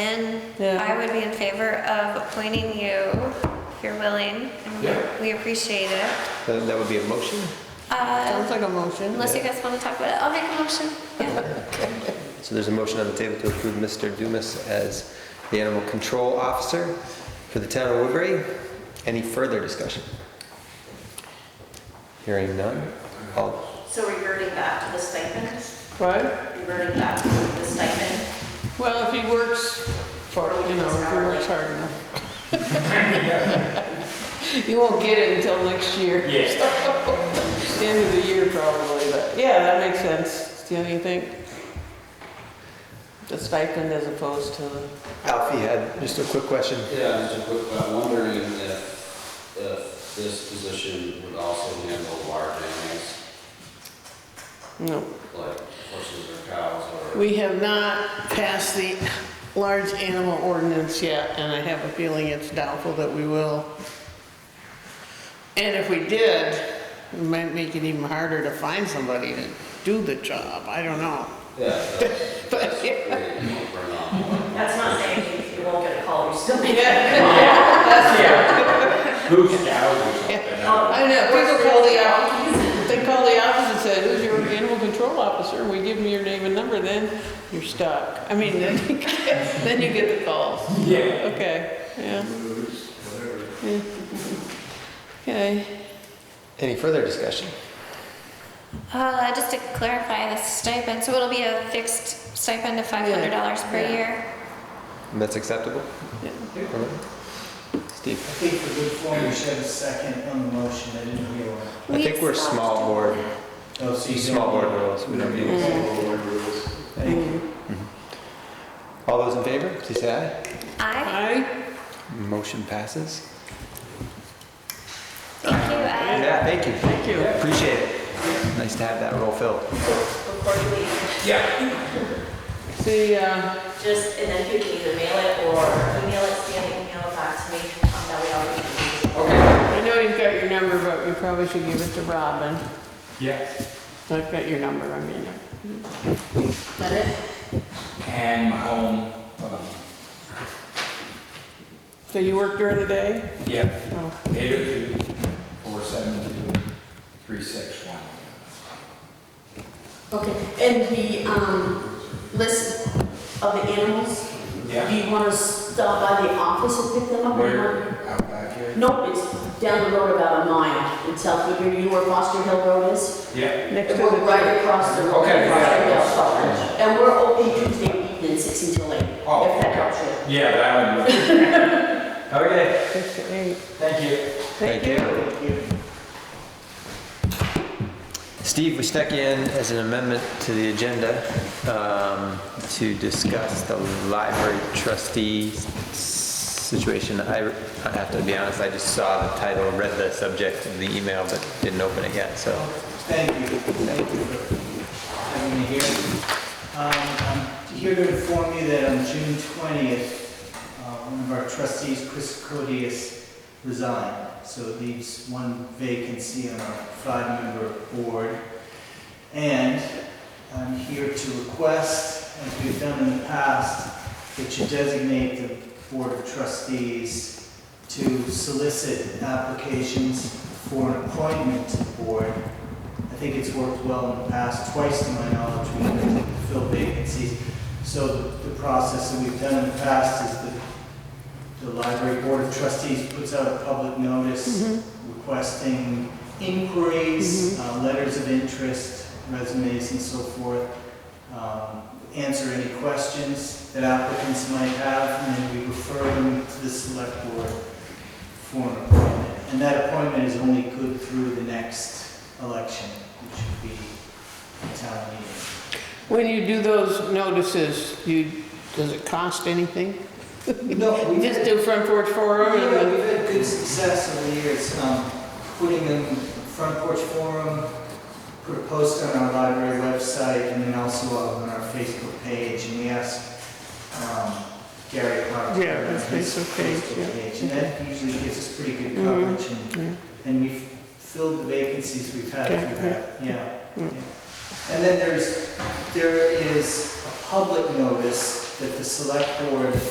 Ben, Yeah. I would be in favor of appointing you if you're willing. and we- Yeah. We appreciate it. That that would be a motion? Uh, Sounds like a motion. Unless you guys want to talk about it, I'll make a motion. Yeah. So there's a motion on the table to approve Mr. Dumas as the animal control officer for the town of Woodbury. Any further discussion? Hearing none. All, So reverting back to the stipend, Right? reverting back to the stipend. Well, if he works for, you know, if he works hard enough. You won't get it until next year. Yes. End of the year probably, but yeah, that makes sense. Do you think? The stipend as opposed to the, Alfie had just a quick question. Yeah, just a quick, I'm wondering if, if this position would also handle large animals, no. like horses or cows or? We have not passed the large animal ordinance yet, and I have a feeling it's doubtful that we will. And if we did, it might make it even harder to find somebody to do the job, I don't know. Yeah, that's, But- that's great, you know, bring on. That's not saying you- you won't get a call, you still may get Yeah, Who's cows or something? I know, people call the office, they call the office and say, who's your animal control officer? We give them your name and number, then you're stuck. I mean, then you get, then you get the calls. Yeah. Okay, yeah. Yeah. Okay. Any further discussion? Uh, Just to clarify the stipend, so it'll be a fixed stipend of $500 per Yeah. year? And that's acceptable? Yeah. All right. Steve? I think for good form, you should have a second on the motion, I didn't hear one. I think we're small board, Oh, so you don't- small board rules. We don't need. Thank you. All those in favor, please say Aye. Aye. aye. Motion passes. Thank you, aye. Yeah, thank you. Thank you. Appreciate it. Nice to have that role filled. before you leave. The, uh, Just, and then you can either mail it or email it, scan it, email it back to me, um, that way I'll read it. I know you've got your number, but you probably should give it to Robin. Yes. I've got your number, I mean. That it? And my home, um, So you work during the day? yeah, Oh, eight oh two, four seven two, three six one. Okay, and the, um, list of the animals, Yeah, you want to stop by the office and pick them where, out back here? Nope, it's down the road about a mile, in South Woodbury, you know where Foster Hill Road is? Yeah, Next to And we're the, right across the road. Okay, yeah. And we're open Tuesday evening, six until eight, if Oh, that helps you. yeah, that one. Okay, six to eight. thank you. Thank you. Steve, we stuck you in as an amendment to the agenda um, to discuss the library trustee s- situation. I I have to be honest, I just saw the title, read the subject of the email, but didn't open it yet, so. Thank you, thank you for having me here. Um, I'm here to inform you that on June twentieth, uh, one of our trustees, Chris Codius, resigned. So it leaves one vacancy on our five-member board. And I'm here to request, as we've done in the past, that you designate the board of trustees to solicit applications for an appointment to the board I think it's worked well in the past, twice to my knowledge, we've filled vacancies. So the the process that we've done in the past is the, the library board of trustees puts out a public notice requesting inquiries, uh, letters of interest, resumes and so forth. um, Answer any questions that applicants might have, and then we refer them to the select board for an appointment. And that appointment is only good through the next election, which would be the town meeting. When you do those notices, you, does it cost anything? No, You just do front porch forum and Yeah, then, we've had good success over the years, um, putting them in front porch forum, put a post on our library website, and then also on our Facebook page, and we asked, um, Gary Clark. to Yeah, run his Facebook page, yeah. page, And that usually gives us pretty good Mhm. coverage, and, yeah. and we've filled the vacancies we've had Okay, through that, yeah. Mm. yeah. And then there's, there is a public notice that the select board